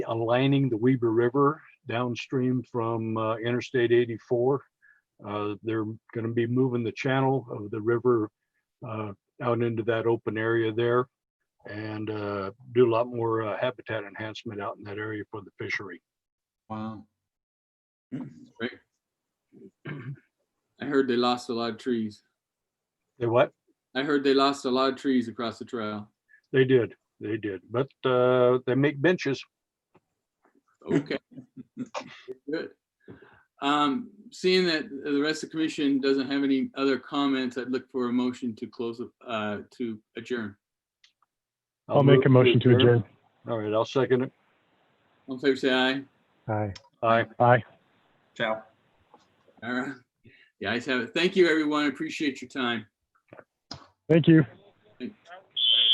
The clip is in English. aligning the Weber River downstream from uh, Interstate 84. Uh, They're going to be moving the channel of the river uh, out into that open area there and uh, do a lot more uh, habitat enhancement out in that area for the fishery. Wow. I heard they lost a lot of trees. They what? I heard they lost a lot of trees across the trail. They did, they did, but uh, they make benches. Okay. Good. Um, seeing that the rest of the commission doesn't have any other comments, I'd look for a motion to close, uh, to adjourn. I'll make a move motion to adjourn. All right, I'll second it. All in favor, say aye. Aye. Aye. Aye. Ciao. All right. The ayes have it. Thank you, everyone. I Appreciate your time. Thank you.